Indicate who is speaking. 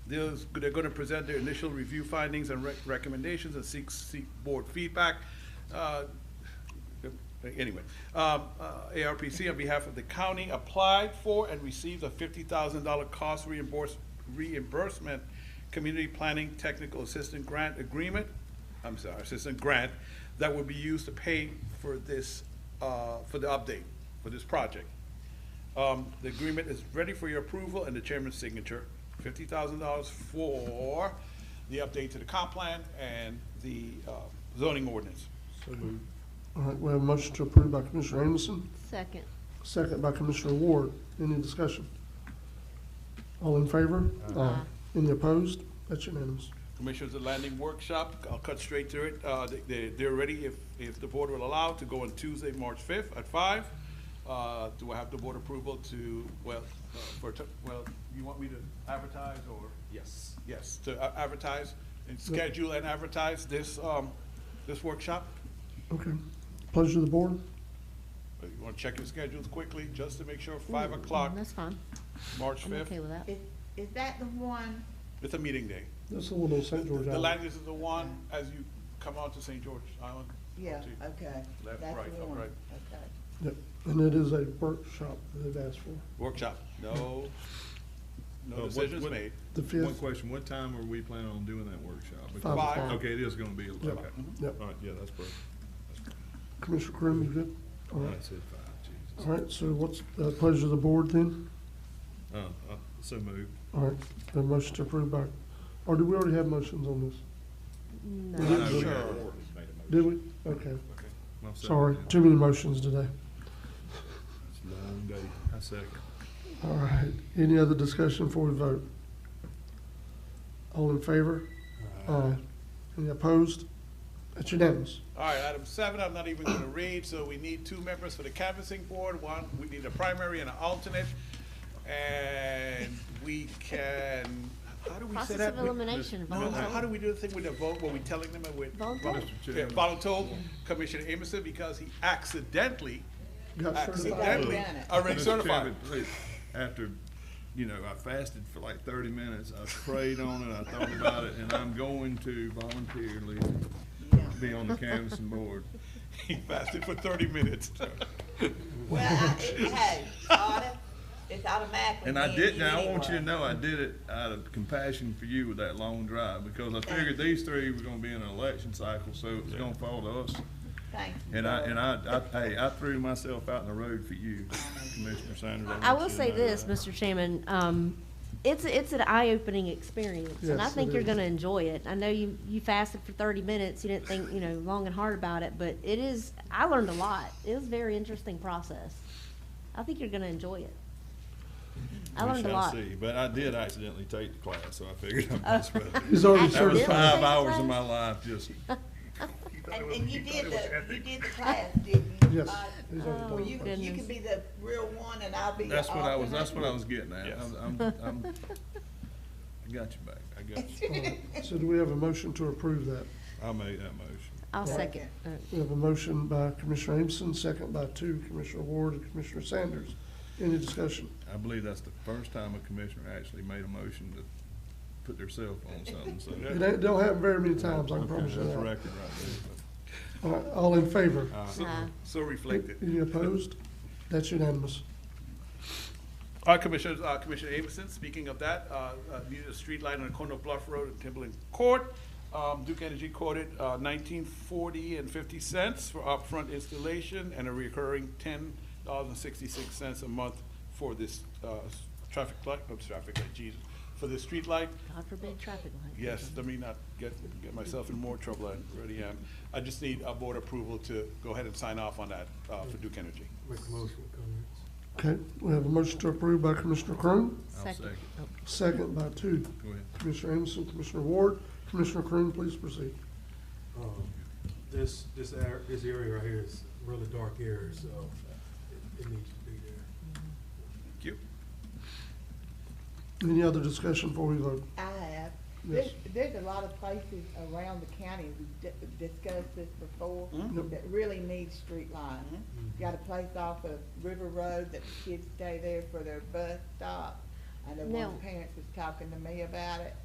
Speaker 1: They're, they're gonna present their initial review findings and rec- recommendations and seek, seek board feedback. Uh, Anyway, um, uh, ARPC on behalf of the county applied for and received a fifty thousand dollar cost reimburse, reimbursement Community Planning Technical Assistant Grant Agreement, I'm sorry, Assistant Grant, that will be used to pay for this, uh, for the update, for this project. Um, the agreement is ready for your approval and the chairman's signature. Fifty thousand dollars for the update to the comp plan and the, uh, zoning ordinance.
Speaker 2: All right, we have a motion to approve by Commissioner Amison,
Speaker 3: Second.
Speaker 2: second by Commissioner Ward. Any discussion? All in favor? Aye. Any opposed? That's unanimous.
Speaker 1: Commissioners, the landing workshop, I'll cut straight to it. Uh, they- they, they're ready, if, if the board will allow, to go on Tuesday, March fifth at five. Uh, do I have the board approval to, well, uh, for, t- well, you want me to advertise or? Yes. Yes, to a- advertise and schedule and advertise this, um, this workshop?
Speaker 2: Okay. Pleasure of the board.
Speaker 1: Uh, You wanna check your schedules quickly, just to make sure, five o'clock,
Speaker 3: Mm, That's fine.
Speaker 1: March
Speaker 3: I'm
Speaker 1: fifth,
Speaker 3: okay with that.
Speaker 4: Is, is that the one,
Speaker 1: it's a meeting day.
Speaker 2: That's a little
Speaker 1: The
Speaker 2: St. George
Speaker 1: the
Speaker 2: Island.
Speaker 1: landing is the one as you come out to St. George Island.
Speaker 4: yeah,
Speaker 1: to-
Speaker 4: okay.
Speaker 1: Left,
Speaker 4: that's
Speaker 1: right,
Speaker 4: the
Speaker 1: up,
Speaker 4: one.
Speaker 1: right.
Speaker 4: Okay.
Speaker 2: Yep, and it is a workshop that they've asked for.
Speaker 1: Workshop, no,
Speaker 5: Uh,
Speaker 1: no
Speaker 5: what-
Speaker 1: decisions
Speaker 5: what-
Speaker 1: made.
Speaker 2: The
Speaker 5: One
Speaker 2: fifth,
Speaker 5: question, what time are we planning on doing that workshop?
Speaker 2: five
Speaker 1: Five.
Speaker 2: o'clock.
Speaker 5: Okay, it is gonna be, okay.
Speaker 2: Yep. Yep.
Speaker 5: All right, yeah, that's perfect.
Speaker 2: Commissioner Krim, you good? All
Speaker 5: I
Speaker 2: right,
Speaker 5: said five, Jesus.
Speaker 2: all right, so what's the pleasure of the board then?
Speaker 5: Uh, uh, so moved.
Speaker 2: All right, the motion to approve by, or do we already have motions on this?
Speaker 3: No.
Speaker 2: We
Speaker 5: I know
Speaker 2: didn't
Speaker 5: we
Speaker 2: do-
Speaker 5: had already made a motion.
Speaker 2: Did we? Okay,
Speaker 5: Okay. I'll second
Speaker 2: sorry,
Speaker 5: that.
Speaker 2: too many motions today.
Speaker 5: It's a long day. I second.
Speaker 2: All right, any other discussion before we vote? All in favor? Aye. Any opposed? That's unanimous.
Speaker 1: All right, item seven, I'm not even gonna read, so we need two members for the canvassing board, one, we need a primary and an alternate. And we can, how do we say
Speaker 3: Process
Speaker 1: that?
Speaker 3: of
Speaker 1: We-
Speaker 3: elimination.
Speaker 1: No, how- how do
Speaker 3: volunteer.
Speaker 1: we do the thing with the vote, were we telling them that we're?
Speaker 3: Voluntold.
Speaker 1: Yeah, voluntold Commissioner Emerson, because he accidentally,
Speaker 2: Got certified.
Speaker 1: accidentally,
Speaker 4: Done it.
Speaker 1: already
Speaker 5: Mr.
Speaker 1: certified.
Speaker 5: Chairman, please, After, you know, I fasted for like thirty minutes, I prayed on it, I thought about it, and I'm going to voluntarily be on the canvassing board.
Speaker 1: He fasted for thirty minutes.
Speaker 4: Well, I, it, hey, auto- it's automatically.
Speaker 5: And I
Speaker 4: being
Speaker 5: did, now I
Speaker 4: anyway.
Speaker 5: want you to know, I did it out of compassion for you with that long drive, because I figured these three were gonna be in an election cycle, so it was gonna fall to us.
Speaker 4: Thank you.
Speaker 5: And I,
Speaker 4: Lord.
Speaker 5: and I, I, hey, I threw myself out in the road for you, Commissioner Sanders. uh,
Speaker 3: I
Speaker 5: want
Speaker 3: will
Speaker 5: you to
Speaker 3: say
Speaker 5: know
Speaker 3: this,
Speaker 5: that.
Speaker 3: Mr. Chairman, um, it's, it's an eye-opening experience, and I
Speaker 2: Yes,
Speaker 3: think
Speaker 2: it
Speaker 3: you're
Speaker 2: is.
Speaker 3: gonna enjoy it. I know you, you fasted for thirty minutes, you didn't think, you know, long and hard about it, but it is, I learned a lot. It was a very interesting process. I think you're gonna enjoy it. I
Speaker 5: We
Speaker 3: learned a
Speaker 5: shall
Speaker 3: lot.
Speaker 5: see. But I did accidentally take the class, so I figured I might as well.
Speaker 2: He's already
Speaker 5: That was
Speaker 3: Accidentally take
Speaker 5: five
Speaker 2: certified.
Speaker 3: the
Speaker 5: hours of
Speaker 3: class?
Speaker 5: my life, just,
Speaker 4: And, and you did the, you did the class, didn't you?
Speaker 2: Yes,
Speaker 4: Uh,
Speaker 2: he's already
Speaker 4: Well,
Speaker 2: done
Speaker 4: you,
Speaker 2: it.
Speaker 4: you
Speaker 3: Goodness.
Speaker 4: could be the real one and I'll be the
Speaker 5: that's what I was, that's what I
Speaker 4: alternate.
Speaker 5: was getting at.
Speaker 1: Yes.
Speaker 5: I'm, I'm, I'm- I got you back, I got you.
Speaker 2: So do we have a motion to approve that?
Speaker 5: I made that motion.
Speaker 3: I'll second. Uh,
Speaker 2: We have a motion by Commissioner Amison, second by two, Commissioner Ward and Commissioner Sanders. Any discussion?
Speaker 5: I believe that's the first time a commissioner actually made a motion to put theirself on something, so.
Speaker 2: It ain't, don't happen very many times, I can promise you
Speaker 5: That's a
Speaker 2: that.
Speaker 5: record right
Speaker 2: All right, all in favor?
Speaker 5: there.
Speaker 3: uh,
Speaker 1: So reflected.
Speaker 2: Any opposed? That's unanimous.
Speaker 1: Our commissioners, uh, Commissioner Amison, speaking of that, uh, uh, needed a street light on the corner of Bluff Road and Timberland Court. Um, Duke Energy quoted, uh, nineteen forty and fifty cents for upfront installation and a recurring ten dollars and sixty-six cents a month for this, uh, s- traffic light, oops, traffic light, Jesus, for the street light.
Speaker 3: God forbid traffic light.
Speaker 1: Yes, let me not get, get myself in more trouble, I already am. I just need a board approval to go ahead and sign off on that, uh, for Duke Energy.
Speaker 6: Make a motion, Congress.
Speaker 2: Okay, we have a motion to approve by Commissioner Croom,
Speaker 5: I'll
Speaker 3: Second.
Speaker 5: second.
Speaker 3: Oh,
Speaker 2: second by two,
Speaker 5: Go ahead.
Speaker 2: Commissioner Amison, Commissioner Ward. Commissioner Croom, please proceed.
Speaker 6: Um, This, this ar- this area right here is really dark area, so it- it needs to be there.
Speaker 1: Thank you.
Speaker 2: Any other discussion before we vote?
Speaker 4: I have. There's,
Speaker 2: Yes.
Speaker 4: there's a lot of places around the county, we di- discussed this before,
Speaker 1: Mhm.
Speaker 4: that really need street lights. Got a place off of River Road that the kids stay there for their bus stop. I know one
Speaker 3: Now-
Speaker 4: of the parents was talking to me about it,